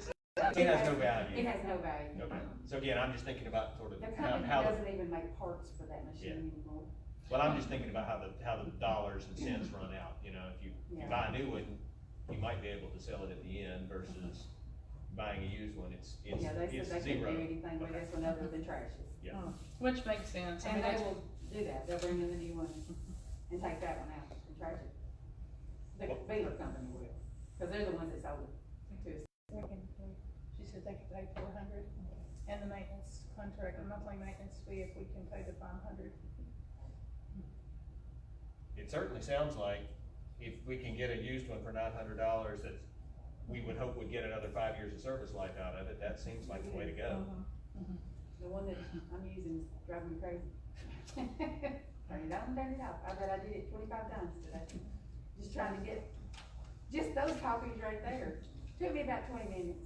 It has no It value. has no value. Okay. So again, I'm just thinking about sort of The how, company how, the- doesn't even make parts for that machine anymore. well, I'm just thinking about how the, how the dollars and cents run out, you know, if you, you Yeah. buy a new one, you might be able to sell it at the end versus buying a used one, it's, it's, Yeah, they it's said they couldn't do zero. anything with Okay. this one other than trash it. Yeah. Which makes sense. I And mean, they that's, will do that, they'll bring in the new one and take that one out and trash it. The Well- Baylor company will, because they're the ones that sold it to us. We can, we- she said they could pay four hundred, and the maintenance contract, the monthly maintenance fee, if we can pay the five hundred. It certainly sounds like if we can get a used one for nine hundred dollars, that we would hope would get another five years of service life out of it, that seems like the way to go. The one that I'm using is driving me crazy. Turn it on, turn it off. I bet I did it twenty-five times today. Just trying to get, just those copies right there. Took me about twenty minutes.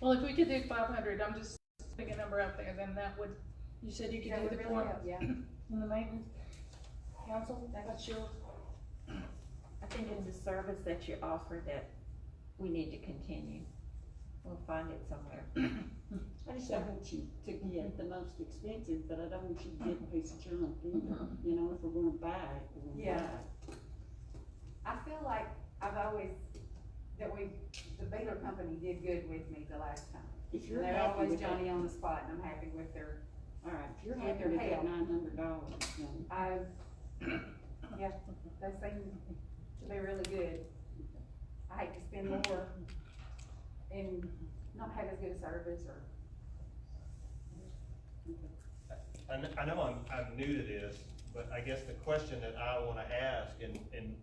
well, if we could do five hundred, I'm just putting a number out there, then that would, you said you That could do would the really form help, Yeah, and the maintenance. Council, that's your, I think it's a service that you offer that we need to continue. We'll find it somewhere. I just don't want you to get the most expensive, but I don't want you to get a piece of junk either, you know, if we're gonna buy it, we're gonna buy Yeah. I feel like I've always, that we, the Baylor company did good with me the last time. it. If you're They're happy always with that, Johnny on the spot and I'm happy with their, all right, if you're with happy their with help. that nine hundred dollars, then I, yeah, they seem to be really good. I hate to spend more and not have as good a service or, I, kn- I know I'm, I'm new to this, but I guess the question that I wanna ask, and, and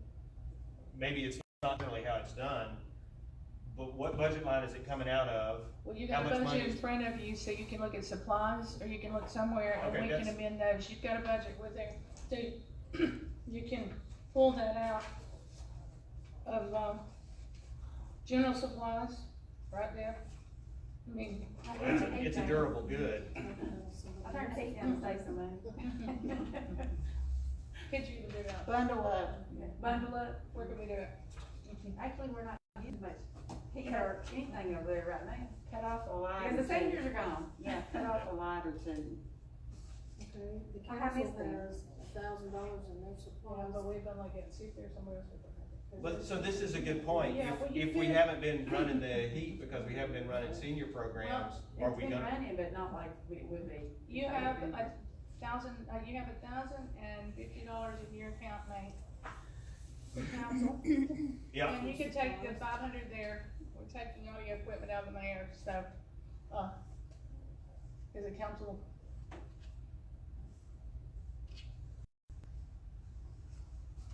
maybe it's not really how it's done, but what budget line is it coming out of? well, you How got a much money budget in is- front of you, so you can look at supplies, or you can look somewhere, Okay, and we can that's- amend those. You've got a budget with there, so you can pull that out of, um, general supplies, right there. I mean, I Well, It's turned the a, heat it's a down. durable good. I turned the heat down to save some money. could you do that? bundle up. Bundle up, Where can we do it? actually, we're not using much heat or anything over there right now, Cut off a light. because the seniors are gone. Yeah, cut off a light or two. Okay, the I have council this thing. has a thousand dollars in their Well, supplies. but we've been looking, see if there's somewhere else. we can have it. But, so this is a good point. Yeah, well, If, you if we could- haven't been running the heat because we haven't been running senior programs, are It's we been gonna? running, but not like it would be. You have a thousand, uh, you have a thousand and fifty dollars in your account, Nate. for council. Yeah, And you could take the five hundred there, we're taking all your equipment out of the mayor, so, uh, is it council?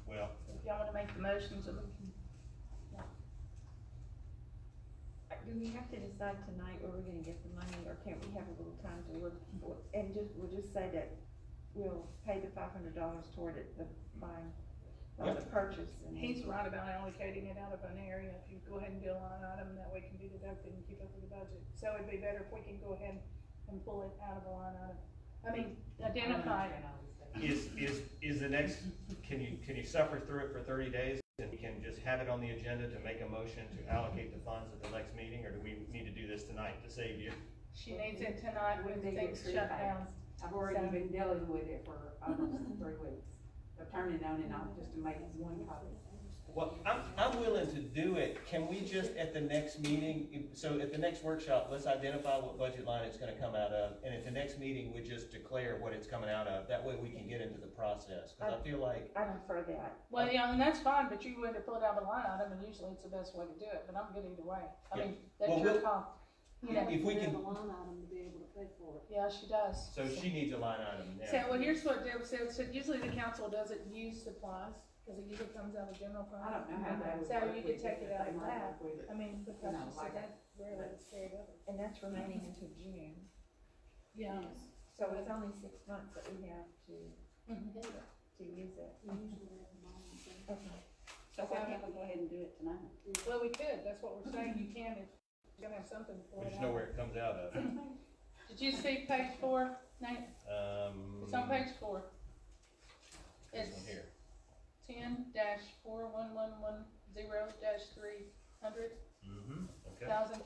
well, If y'all wanna make the motion, so we can, Do we have to decide tonight where we're gonna get the money, or can't we have a little time to look, and just, we'll just say that we'll pay the five hundred dollars toward it, the buying, or the purchase. and- he's right about allocating it out of an area, if you go ahead and do a line item, that way it can be deducted and keep up with the budget. So it'd be better if we can go ahead and pull it out of a line item, I mean, identify it. is, is, is the next, can you, can you suffer through it for thirty days? And we can just have it on the agenda to make a motion to allocate the funds at the next meeting, or do we need to do this tonight to save you? She needs it tonight when things shut down. I've already been dealing with it for almost three weeks, of turning it on and off just to make one copy. Well, I'm, I'm willing to do it. Can we just at the next meeting, if- so at the next workshop, let's identify what budget line it's gonna come out of. And at the next meeting, we just declare what it's coming out of. That way we can get into the process. Cause I feel like, I prefer that. Well, yeah, and that's fine, but you would have pulled out a line item, and usually it's the best way to do it, but I'm good either way. I mean, that's Well, your we'll- call. You know, if we have can, a line item to be able to pay for it. yeah, she does. so she needs a line item So, now. well, here's what Deb said, so usually the council doesn't use supplies, because it usually comes out of general fund. I don't know how that would. So work you could with take it if out of they might that. work with it. I mean, because No, she said like- that rarely is carried over. And that's remaining until June, Yeah. so it's only six months that we have to, to use it. We usually have a line item. Okay. So, So why can't we go ahead and do it tonight? well, we could, that's what we're saying, you can, if you're gonna have something for We it. just know where it comes out of. Did you see page four, Nate? Um. It's on page four. this It's one Here. ten dash four one one one zero dash three hundred Mm-hmm, okay. thousand